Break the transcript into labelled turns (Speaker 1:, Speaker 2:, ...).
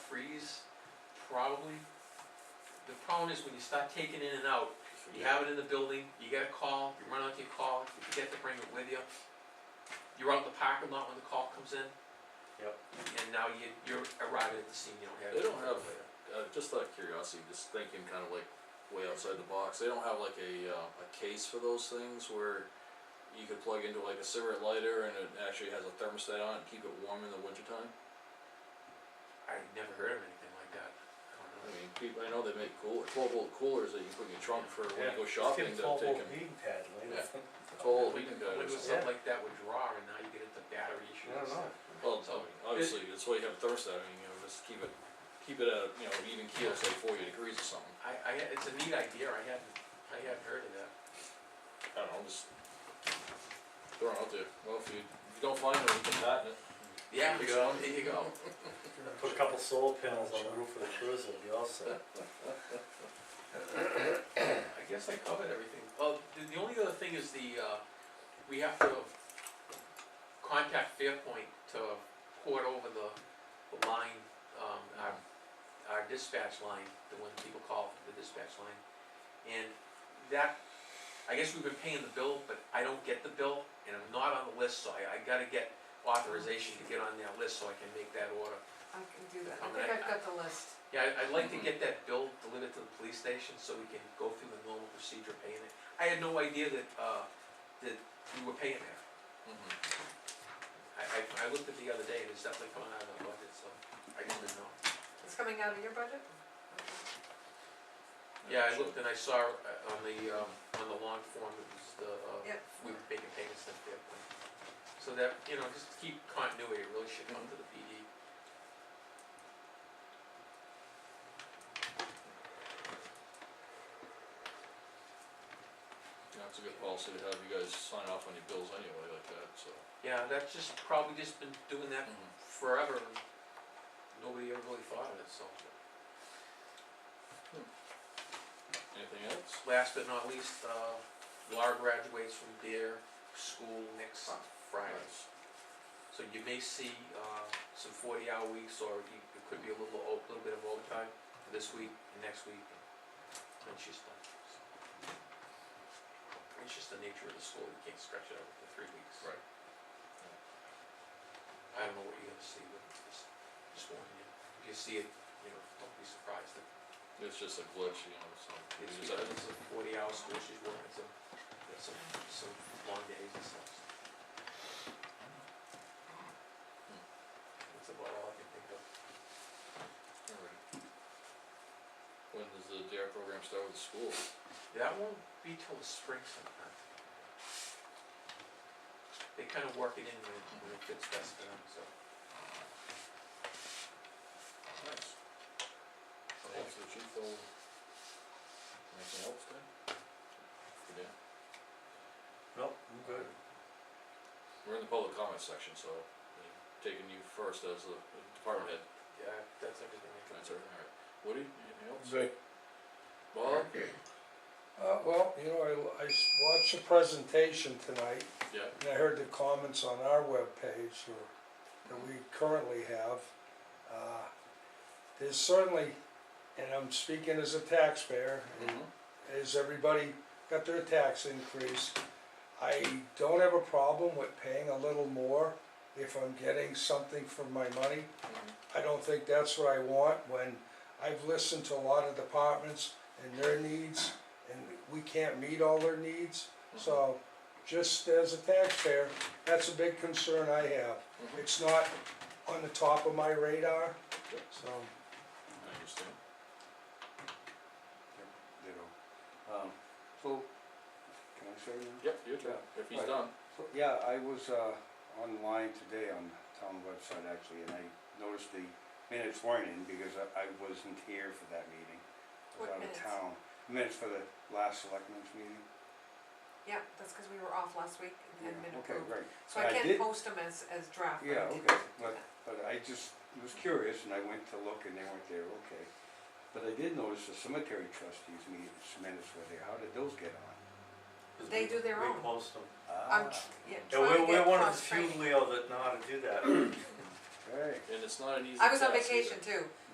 Speaker 1: probably, the problem is when you start taking in and out, you have it in the building, you get a call, you run out to your call, you forget to bring it with you. You're out in the parking lot when the call comes in.
Speaker 2: Yep.
Speaker 1: And now you, you're arriving at the scene, you don't have.
Speaker 3: They
Speaker 1: it.
Speaker 3: don't have, uh, just out of curiosity, just thinking kind of like way outside the box, they don't have like a, uh, a case for those things where you could plug into like a cigarette lighter and it actually has a thermostat on it, keep it warm in the wintertime?
Speaker 1: I never heard of anything like that. I don't
Speaker 3: I
Speaker 1: know.
Speaker 3: mean, people, I know they make cooler, twelve volt coolers that you put in your trunk for when you go shopping to
Speaker 2: Let's get
Speaker 3: take
Speaker 2: a twelve volt
Speaker 3: them.
Speaker 2: heating pad later.
Speaker 3: Twelve volt heating
Speaker 1: When
Speaker 3: guns.
Speaker 1: was something like that would draw and now you get into battery issues.
Speaker 2: I don't know.
Speaker 3: Well, it's- I mean, obviously, that's why you have a thermostat, I mean, you know, just keep it, keep it at, you know, even keel, say forty degrees or something.
Speaker 1: I, I, it's a neat idea, I hadn't, I hadn't heard of that.
Speaker 3: I don't know, just throw it out there. Well, if you, if you don't find it, you can patent it.
Speaker 1: Yeah,
Speaker 3: There you go.
Speaker 1: there you go.
Speaker 2: Put a couple solar panels on the roof of the cruiser, it'll be all set.
Speaker 1: I guess I covered everything. Well, the, the only other thing is the, uh, we have to contact Fairpoint to port over the, the line, um, our, our dispatch line, the one people call the dispatch line. And that, I guess we've been paying the bill, but I don't get the bill, and I'm not on the list, so I, I gotta get authorization to get on that list so I can make that order.
Speaker 4: I can do that, I
Speaker 1: Come
Speaker 4: think
Speaker 1: back.
Speaker 4: I've got the list.
Speaker 1: Yeah, I- I'd like to get that bill delivered to the police station so we can go through the normal procedure of paying it. I had no idea that, uh, that we were paying that. Mm-hmm.
Speaker 3: Mhm.
Speaker 1: I, I, I looked at the other day and it's definitely coming out of the budget, so I didn't know.
Speaker 4: It's coming out of your budget?
Speaker 1: Yeah, I looked and I saw uh, on the, um, on the lawn form, it was the, uh,
Speaker 4: Yep.
Speaker 1: we were making payments to Fairpoint. So that, you know, just keep continuity, it really should come to the PD.
Speaker 3: Yeah, it's a good policy to have you guys sign off on your bills anyway like that, so.
Speaker 1: Yeah, that's just probably just been doing that
Speaker 3: Mhm.
Speaker 1: forever and nobody ever really thought of it, so.
Speaker 3: Anything else?
Speaker 1: Last but not least, uh, Laura graduates from their school next Friday.
Speaker 3: Nice.
Speaker 1: So you may see, uh, some forty-hour weeks, or you- it could be a little, o- little bit of overtime for this week and next week, and she's done. so. It's just the nature of the school, you can't stretch it out for three weeks.
Speaker 3: Right.
Speaker 1: I don't know what you're gonna see, but just, just warning you, if you see it, you know, don't be surprised, if
Speaker 3: It's just a glitch, you know, so. we
Speaker 1: it's
Speaker 3: just
Speaker 1: because
Speaker 3: have to-
Speaker 1: it's a forty-hour school, she's working some, some, some long days and stuff, so. That's about all I can think of.
Speaker 3: alright. When does the DARE program start with the school?
Speaker 1: That won't be till the spring sometime. They kind of work it in when, it- when it fits best for them, so.
Speaker 3: Nice. Thanks to the chief, though. Anything else, Dan? Yeah.
Speaker 2: Nope, I'm good.
Speaker 3: We're in the public comment section, so uh, taking you first as the the department head.
Speaker 1: Yeah, that's everything I can.
Speaker 3: That's everything, alright. Woody, anything else?
Speaker 5: Say,
Speaker 3: Bob?
Speaker 5: Uh, well, you know, I, I s- watched the presentation tonight,
Speaker 3: Yeah.
Speaker 5: and I heard the comments on our webpage, or, that we currently have. Uh, There's certainly, and I'm speaking as a taxpayer, and
Speaker 6: Mm-hmm.
Speaker 3: Mhm.
Speaker 5: as everybody got their tax increase, I don't have a problem with paying a little more if I'm getting something for my money.
Speaker 3: Mhm.
Speaker 5: I don't think that's what I want when I've listened to a lot of departments and their needs, and we can't meet all their needs. So, just as a taxpayer, that's a big concern I have.
Speaker 3: Mhm.
Speaker 6: Mm-hmm.
Speaker 5: It's not on the top of my radar,
Speaker 3: Yep.
Speaker 5: so,
Speaker 3: I understand.
Speaker 6: ditto. Um, so, can I say now?
Speaker 3: Yep, your turn, if he's done.
Speaker 6: So, yeah, I was, uh, online today on town website actually, and I noticed the minutes weren't in because I, I wasn't here for that meeting. I was
Speaker 4: What
Speaker 6: out of
Speaker 4: minutes?
Speaker 6: town. Minutes for the last selectmen's meeting?
Speaker 4: Yeah, that's because we were off last week and had
Speaker 6: Yeah,
Speaker 4: been
Speaker 6: Okay,
Speaker 4: approved.
Speaker 6: great.
Speaker 4: So
Speaker 6: And
Speaker 4: I
Speaker 6: did-
Speaker 4: can't post them as, as draft. but I
Speaker 6: Yeah,
Speaker 4: can-
Speaker 6: okay, but, but I just was curious and I went to look and they weren't there, okay. But I did notice the cemetery trustees meetings minutes were there, how did those get on?
Speaker 4: They do their own.
Speaker 2: We post them.
Speaker 4: I'm,
Speaker 6: Ah,
Speaker 4: tr- yeah,
Speaker 2: Yeah,
Speaker 4: trying
Speaker 2: we're,
Speaker 4: to get
Speaker 2: we're one of the
Speaker 4: cross
Speaker 2: few,
Speaker 4: training.
Speaker 2: Leo, that know how to do that.
Speaker 6: Ah, Okay.
Speaker 3: And it's not an easy
Speaker 4: I was on
Speaker 3: task either.
Speaker 4: vacation too,